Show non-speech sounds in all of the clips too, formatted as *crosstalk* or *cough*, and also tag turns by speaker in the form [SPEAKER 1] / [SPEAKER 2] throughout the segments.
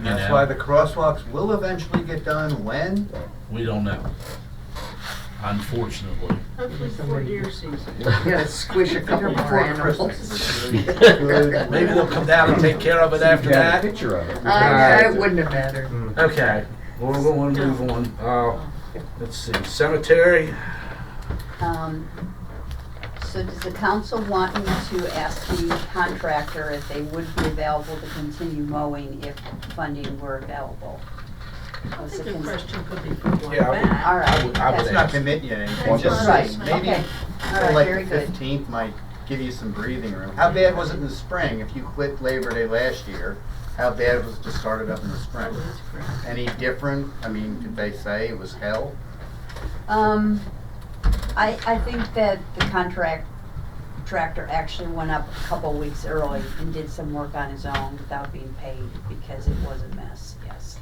[SPEAKER 1] know.
[SPEAKER 2] That's why the crosswalks will eventually get done when?
[SPEAKER 1] We don't know. Unfortunately.
[SPEAKER 3] Hopefully for deer season.
[SPEAKER 4] Gotta squish a couple more
[SPEAKER 2] Before
[SPEAKER 4] animals.
[SPEAKER 2] Christmas. *laughs* Good
[SPEAKER 1] Maybe we'll come down and take care of it after
[SPEAKER 5] Yeah,
[SPEAKER 1] that. uh,
[SPEAKER 5] a picture of it.
[SPEAKER 4] *laughs* I, I wouldn't have mattered.
[SPEAKER 2] Hmm.
[SPEAKER 1] Okay, well, we're going to move on. Uh, let's see, cemetery,
[SPEAKER 6] Um, So does the council want me to ask the contractor if they would be available to continue mowing if funding were available?
[SPEAKER 3] I
[SPEAKER 6] Was
[SPEAKER 3] think
[SPEAKER 6] the
[SPEAKER 3] the
[SPEAKER 6] cons-
[SPEAKER 3] question could be put
[SPEAKER 1] Yeah, I
[SPEAKER 3] like
[SPEAKER 1] would-
[SPEAKER 3] that.
[SPEAKER 6] All
[SPEAKER 1] I would- I
[SPEAKER 6] right.
[SPEAKER 1] would
[SPEAKER 6] that's-
[SPEAKER 2] It's not committing you to anything,
[SPEAKER 5] Right,
[SPEAKER 2] just
[SPEAKER 6] Right,
[SPEAKER 2] maybe
[SPEAKER 6] okay. All
[SPEAKER 2] till
[SPEAKER 6] right,
[SPEAKER 2] like
[SPEAKER 6] very
[SPEAKER 2] the
[SPEAKER 6] good.
[SPEAKER 2] fifteenth might give you some breathing room. How bad was it in the spring? If you quit Labor Day last year, how bad was it to start it up in the spring? Any different? I mean, did they say it was hell?
[SPEAKER 6] Um, I, I think that the contract, tractor actually went up a couple weeks early and did some work on his own without being paid because it was a mess, yes.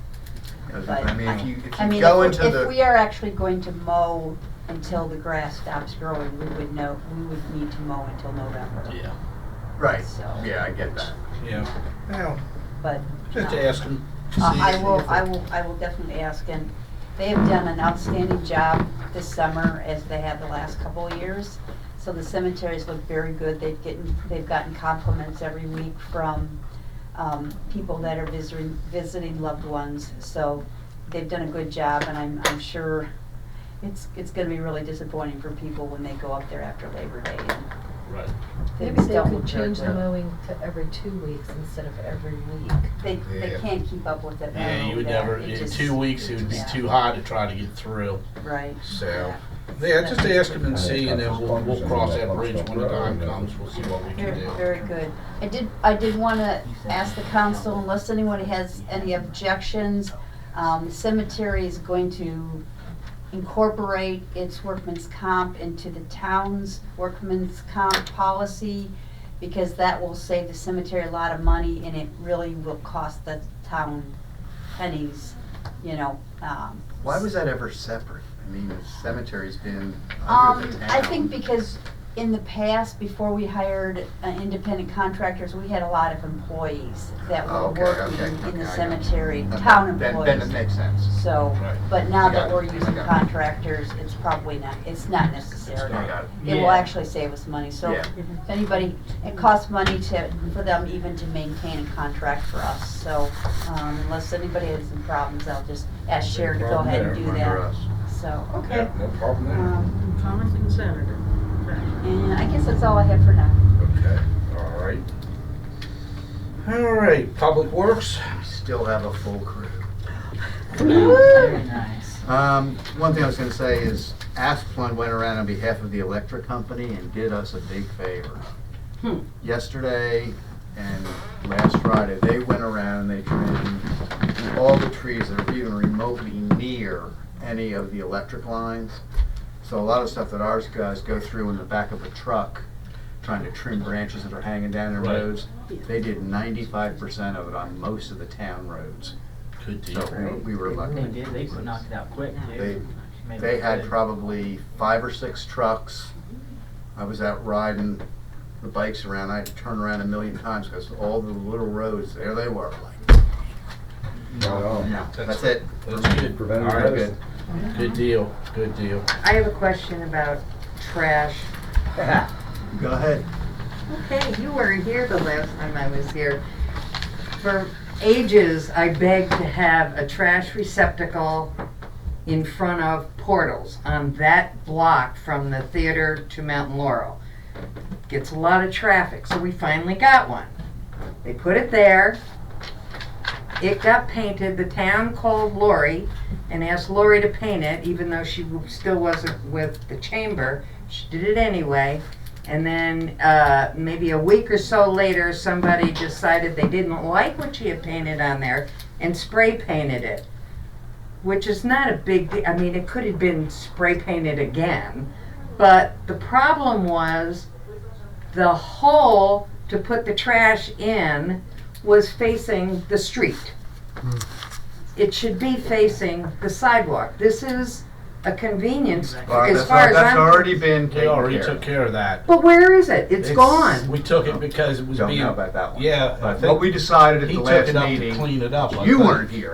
[SPEAKER 2] 'Cause,
[SPEAKER 6] But
[SPEAKER 2] I mean, if you, if
[SPEAKER 6] I
[SPEAKER 2] you
[SPEAKER 6] mean,
[SPEAKER 2] go
[SPEAKER 6] if,
[SPEAKER 2] into
[SPEAKER 6] if we
[SPEAKER 2] the,
[SPEAKER 6] are actually going to mow until the grass stops growing, we would know, we would need to mow until November.
[SPEAKER 1] yeah,
[SPEAKER 2] right,
[SPEAKER 6] so-
[SPEAKER 2] yeah, I get that.
[SPEAKER 1] yeah,
[SPEAKER 5] Well,
[SPEAKER 6] But,
[SPEAKER 1] just
[SPEAKER 6] no.
[SPEAKER 1] ask them.
[SPEAKER 6] Uh, I will, I will, I will definitely ask, and they have done an outstanding job this summer as they have the last couple of years. So the cemeteries look very good, they've gotten, they've gotten compliments every week from, um, people that are visiting, visiting loved ones. So they've done a good job, and I'm, I'm sure it's, it's gonna be really disappointing for people when they go up there after Labor Day and
[SPEAKER 1] Right.
[SPEAKER 7] Maybe
[SPEAKER 6] things
[SPEAKER 7] they
[SPEAKER 6] don't
[SPEAKER 7] could
[SPEAKER 6] work
[SPEAKER 7] change the
[SPEAKER 6] out.
[SPEAKER 7] mowing to every two weeks instead of every week.
[SPEAKER 6] They, they
[SPEAKER 5] Yeah.
[SPEAKER 6] can't keep up with it.
[SPEAKER 1] Yeah, you would
[SPEAKER 6] They're-
[SPEAKER 1] never,
[SPEAKER 6] it
[SPEAKER 1] in
[SPEAKER 6] just-
[SPEAKER 1] two weeks, it would be
[SPEAKER 6] yeah,
[SPEAKER 1] too high to try to get through,
[SPEAKER 6] Right.
[SPEAKER 1] so. Yeah, just ask them and see, and then we'll, we'll cross that bridge when the time comes, we'll see what we
[SPEAKER 6] Very,
[SPEAKER 1] can do.
[SPEAKER 6] very good. I did, I did wanna ask the council, unless anyone has any objections, um, the cemetery is going to incorporate its workman's comp into the town's workman's comp policy, because that will save the cemetery a lot of money, and it really will cost the town pennies, you know, um.
[SPEAKER 2] Why was that ever separate? I mean, the cemetery's been under
[SPEAKER 6] Um,
[SPEAKER 2] the town.
[SPEAKER 6] I think because in the past, before we hired uh, independent contractors, we had a lot of employees that
[SPEAKER 2] Oh,
[SPEAKER 6] were
[SPEAKER 2] okay,
[SPEAKER 6] working
[SPEAKER 2] okay,
[SPEAKER 6] in
[SPEAKER 2] okay, I
[SPEAKER 6] the
[SPEAKER 2] got *laughs*
[SPEAKER 6] cemetery,
[SPEAKER 2] Okay,
[SPEAKER 6] town
[SPEAKER 2] then- Then it
[SPEAKER 6] employees.
[SPEAKER 2] makes sense.
[SPEAKER 6] So,
[SPEAKER 1] Right.
[SPEAKER 6] but now
[SPEAKER 2] I
[SPEAKER 6] that
[SPEAKER 2] got
[SPEAKER 6] we're
[SPEAKER 2] it, I
[SPEAKER 6] using
[SPEAKER 2] got it.
[SPEAKER 6] contractors, it's probably not, it's not necessary.
[SPEAKER 1] not.
[SPEAKER 2] Got it.
[SPEAKER 6] It will
[SPEAKER 3] Yeah.
[SPEAKER 6] actually save us money, so
[SPEAKER 2] Yeah.
[SPEAKER 6] if anybody, it costs money to, for them even to maintain a contract for us. So, um, unless anybody has some problems, I'll just ask Sharon to go
[SPEAKER 1] Problem
[SPEAKER 6] ahead and
[SPEAKER 1] there,
[SPEAKER 6] do
[SPEAKER 2] Under
[SPEAKER 6] that,
[SPEAKER 2] us.
[SPEAKER 6] so, okay.
[SPEAKER 1] Yeah, no problem there.
[SPEAKER 6] Um,
[SPEAKER 3] Thomas and Senator.
[SPEAKER 6] And I guess that's all I have for now.
[SPEAKER 1] Okay, all right. All right, Public Works,
[SPEAKER 2] Still have a full crew.
[SPEAKER 6] Very
[SPEAKER 4] nice.
[SPEAKER 2] Um, one thing I was gonna say is Asplund went around on behalf of the electric company and did us a big favor.
[SPEAKER 3] Hmm.
[SPEAKER 2] Yesterday and last Friday, they went around, they trimmed all the trees that are even remotely near any of the electric lines. So a lot of stuff that ours guys go through in the back of a truck, trying to trim branches that are hanging down the
[SPEAKER 1] Right.
[SPEAKER 2] roads. They did ninety-five percent of it on most of the town roads.
[SPEAKER 1] good deal.
[SPEAKER 2] So we we were lucky.
[SPEAKER 8] They did, they could knock it out quick,
[SPEAKER 2] They-
[SPEAKER 8] too. Maybe
[SPEAKER 2] They had
[SPEAKER 8] could.
[SPEAKER 2] probably five or six trucks. I was out riding the bikes around. I had to turn around a million times because all the little roads, there they were, like,
[SPEAKER 5] not on.
[SPEAKER 2] no, that's it.
[SPEAKER 1] That's good. All
[SPEAKER 5] Preventive
[SPEAKER 1] right,
[SPEAKER 5] medicine.
[SPEAKER 1] good. Good deal, good deal.
[SPEAKER 4] I have a question about trash.
[SPEAKER 2] Go ahead.
[SPEAKER 4] Okay, you were here the last time I was here. For ages, I begged to have a trash receptacle in front of portals on that block from the theater to Mountain Laurel. Gets a lot of traffic, so we finally got one. They put it there. It got painted, the town called Lori and asked Lori to paint it, even though she still wasn't with the chamber. She did it anyway. And then uh, maybe a week or so later, somebody decided they didn't like what she had painted on there and spray painted it, which is not a big deal. I mean, it could have been spray painted again, but the problem was the hole to put the trash in was facing the street. It should be facing the sidewalk. This is a convenience,
[SPEAKER 2] Well,
[SPEAKER 4] as
[SPEAKER 2] that's
[SPEAKER 4] far
[SPEAKER 2] not-
[SPEAKER 4] as
[SPEAKER 2] That's already
[SPEAKER 4] I'm.
[SPEAKER 2] been
[SPEAKER 1] They already
[SPEAKER 2] taken
[SPEAKER 1] took
[SPEAKER 2] care
[SPEAKER 1] care of that.
[SPEAKER 4] But where is it? It's
[SPEAKER 2] It's-
[SPEAKER 4] gone.
[SPEAKER 1] We took it because it was
[SPEAKER 2] Don't
[SPEAKER 1] being,
[SPEAKER 2] know about that one.
[SPEAKER 1] yeah. I
[SPEAKER 2] But
[SPEAKER 1] think
[SPEAKER 2] what we decided at
[SPEAKER 1] He
[SPEAKER 2] the
[SPEAKER 1] took
[SPEAKER 2] last
[SPEAKER 1] it up to
[SPEAKER 2] meeting,
[SPEAKER 1] clean it up. I
[SPEAKER 2] you
[SPEAKER 1] think.
[SPEAKER 2] weren't here.